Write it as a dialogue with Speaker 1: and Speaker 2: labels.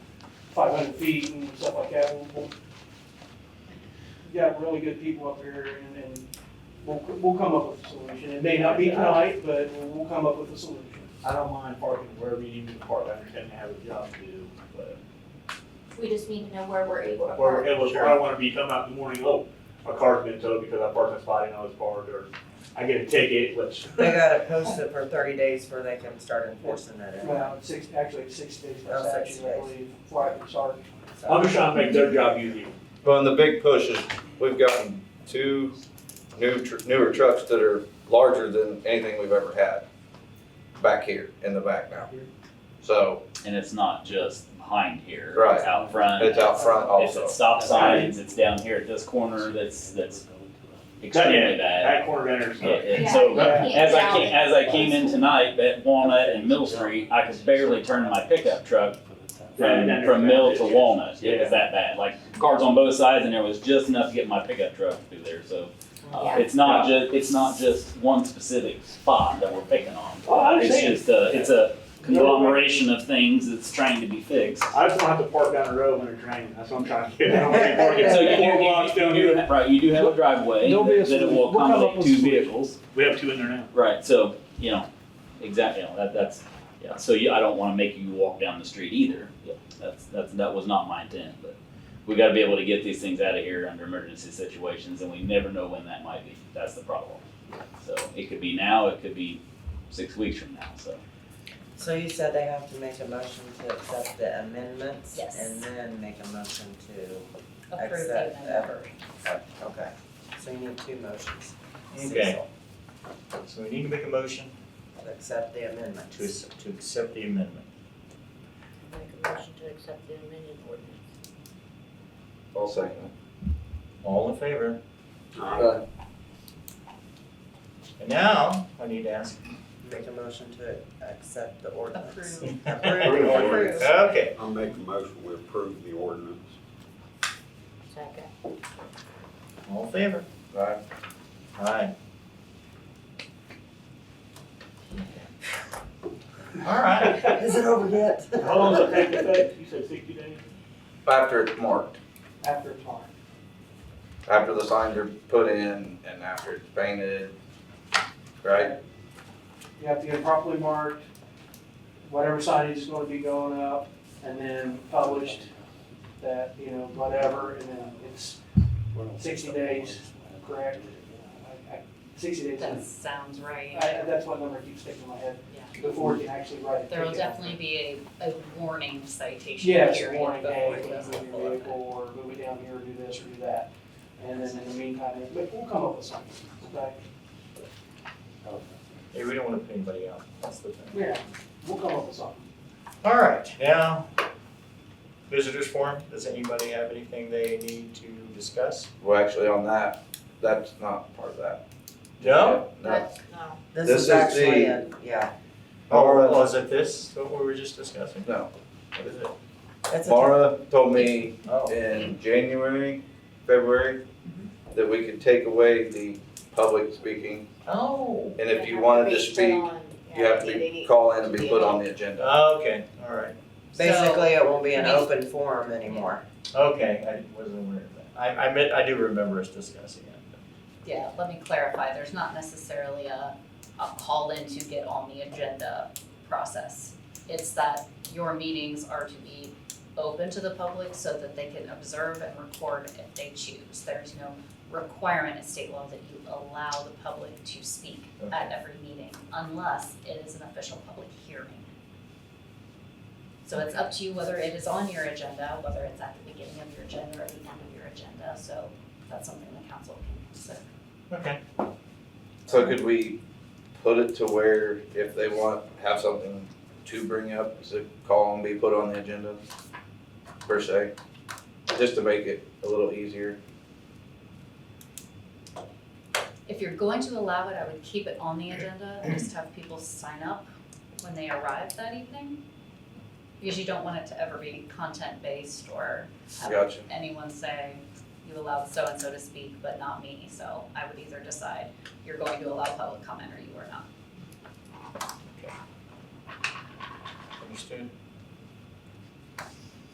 Speaker 1: hundred feet and stuff like that. We'll- we'll- We've got really good people up here and, and we'll, we'll come up with a solution. It may not be tonight, but we'll- we'll come up with a solution.
Speaker 2: I don't mind parking wherever you need me to park, I understand they have a job to do, but.
Speaker 3: We just need to know where we're able to
Speaker 2: Or
Speaker 3: park.
Speaker 2: it was, I don't wanna be coming out in the morning, oh, my car's been towed because I parked in a spot I didn't know it's parked, or I get a ticket, which.
Speaker 4: They gotta post it for thirty days before they can start enforcing that. act,
Speaker 1: Well, it's six, actually it's six days by
Speaker 4: Oh, six
Speaker 1: statute, I
Speaker 4: days.
Speaker 1: believe, flag and sergeant.
Speaker 4: so.
Speaker 2: I'm just trying to make their job easier.
Speaker 5: Well, and the big push is we've gotten two new tr- newer trucks that are larger than anything we've ever had back here in the back now. So
Speaker 6: And it's not just behind here.
Speaker 5: Right.
Speaker 6: It's out front.
Speaker 5: it's out front
Speaker 6: It's
Speaker 5: also.
Speaker 6: at stop signs, it's down here at this corner that's, that's
Speaker 2: Yeah,
Speaker 6: extremely bad.
Speaker 2: That corner enters,
Speaker 6: Yeah,
Speaker 2: so.
Speaker 6: And
Speaker 3: Yeah,
Speaker 6: so,
Speaker 3: you can't
Speaker 6: as I
Speaker 3: get
Speaker 6: came, as I came in tonight at Walnut and Mill Street, I could barely turn my pickup truck from, from Mill to Walnut. It was that bad, like cars on both sides and there was just enough to get my pickup truck through there, so. uh,
Speaker 3: Yeah.
Speaker 6: It's not ju, it's not just one specific spot that we're picking on.
Speaker 2: Oh, I understand.
Speaker 6: It's just a, it's a conglomeration of things that's trying to be fixed.
Speaker 2: I just don't have to park down the road when it's raining, that's what I'm trying to get, I don't wanna be parking
Speaker 6: So you,
Speaker 2: four
Speaker 6: you-
Speaker 2: blocks
Speaker 6: you
Speaker 2: down
Speaker 6: do,
Speaker 2: here.
Speaker 6: have- right, you do have a driveway
Speaker 1: There'll be a
Speaker 6: that that it
Speaker 1: solution. We'll
Speaker 6: will
Speaker 1: come up
Speaker 6: accommodate
Speaker 1: with
Speaker 6: two
Speaker 1: solution.
Speaker 6: vehicles.
Speaker 2: We have two in there now.
Speaker 6: Right, so, you know, exactly, you know, that, that's, yeah, so you, I don't wanna make you walk down the street either. Yeah, That's, that's, that was not my intent, but we gotta be able to get these things out of here under emergency situations and we never know when that might be. That's the problem. So it could be now, it could be six weeks from now, so.
Speaker 4: So you said they have to make a motion to accept the amendments?
Speaker 3: Yes.
Speaker 4: And then make a motion to
Speaker 3: Approve the
Speaker 4: accept
Speaker 3: amendment.
Speaker 4: ever? Oh, Okay, so you need two motions.
Speaker 7: Okay.
Speaker 4: Cecil,
Speaker 7: So we need to make a motion
Speaker 4: To accept the amendments.
Speaker 7: to, ac- to accept the amendment.
Speaker 8: Make a motion to accept the amended ordinance.
Speaker 5: I'll second it.
Speaker 7: All in favor?
Speaker 5: Aye.
Speaker 7: And now, I need to ask.
Speaker 4: Make a motion to accept the ordinance.
Speaker 8: Approve.
Speaker 7: Approve the ordinance. Okay,
Speaker 9: I'll make a motion, we approve the ordinance.
Speaker 8: Second.
Speaker 7: all in favor?
Speaker 5: Aye.
Speaker 7: Aye. All right.
Speaker 4: Is it over yet?
Speaker 2: How long does it take to fix, you said sixty days?
Speaker 5: After it's marked,
Speaker 1: After it's marked.
Speaker 5: after the signs are put in and after it's painted, right?
Speaker 1: You have to get it properly marked, whatever signage is gonna be going up, and then published that, you know, whatever, and then it's sixty days, correct? I- I- Sixty days,
Speaker 8: That
Speaker 1: I,
Speaker 8: sounds right.
Speaker 1: I- that's what number keeps sticking in my head, before you can actually write a ticket.
Speaker 8: There'll definitely be a, a warning citation
Speaker 1: Yeah,
Speaker 8: period.
Speaker 1: it's a warning,
Speaker 8: before
Speaker 1: hey,
Speaker 8: it goes
Speaker 1: move
Speaker 8: up.
Speaker 1: your vehicle, or move it down here, do this or do that. And then in the meantime, but we'll come up with something, okay?
Speaker 7: Hey, we don't want to put anybody out, that's the thing.
Speaker 1: Yeah, we'll come up with something.
Speaker 7: All right, now, visitors forum, does anybody have anything they need to discuss?
Speaker 5: Well, actually on that, that's not part of that.
Speaker 7: No?
Speaker 5: No.
Speaker 8: But, um, no,
Speaker 4: This
Speaker 5: This
Speaker 4: is
Speaker 5: is
Speaker 4: actually,
Speaker 5: the-
Speaker 4: a- yeah,
Speaker 7: Or was it this, what we were just discussing?
Speaker 5: No.
Speaker 7: What is it?
Speaker 4: that's a,
Speaker 5: Mara told me
Speaker 7: Oh,
Speaker 5: in January, February, that we could take away the public speaking.
Speaker 7: oh,
Speaker 5: And if you wanted to speak, you have to call in and be put on the agenda.
Speaker 7: okay, all right,
Speaker 4: basically it won't be an
Speaker 8: So-
Speaker 4: open forum anymore.
Speaker 7: okay, I didn't- wasn't aware of that. I, I meant, I do remember us discussing it.
Speaker 8: yeah, let me clarify, there's not necessarily a, a call in to get on the agenda process. It's that your meetings are to be open to the public so that they can observe and record if they choose. There's no requirement in state law that you allow the public to speak
Speaker 7: Okay.
Speaker 8: at every meeting unless it is an official public hearing. So it's up to you whether it is on your agenda, whether it's at the beginning of your agenda or the end of your agenda, so that's something the council can consider.
Speaker 7: Okay,
Speaker 5: So could we put it to where if they want, have something to bring up, is it call and be put on the agenda? Per se, just to make it a little easier.
Speaker 8: If you're going to allow it, I would keep it on the agenda and just have people sign up when they arrive that evening. Because you don't want it to ever be content-based or have
Speaker 5: Gotcha.
Speaker 8: anyone say, you allowed so-and-so to speak, but not me. So I would either decide you're going to allow public comment or you are not.
Speaker 7: understood.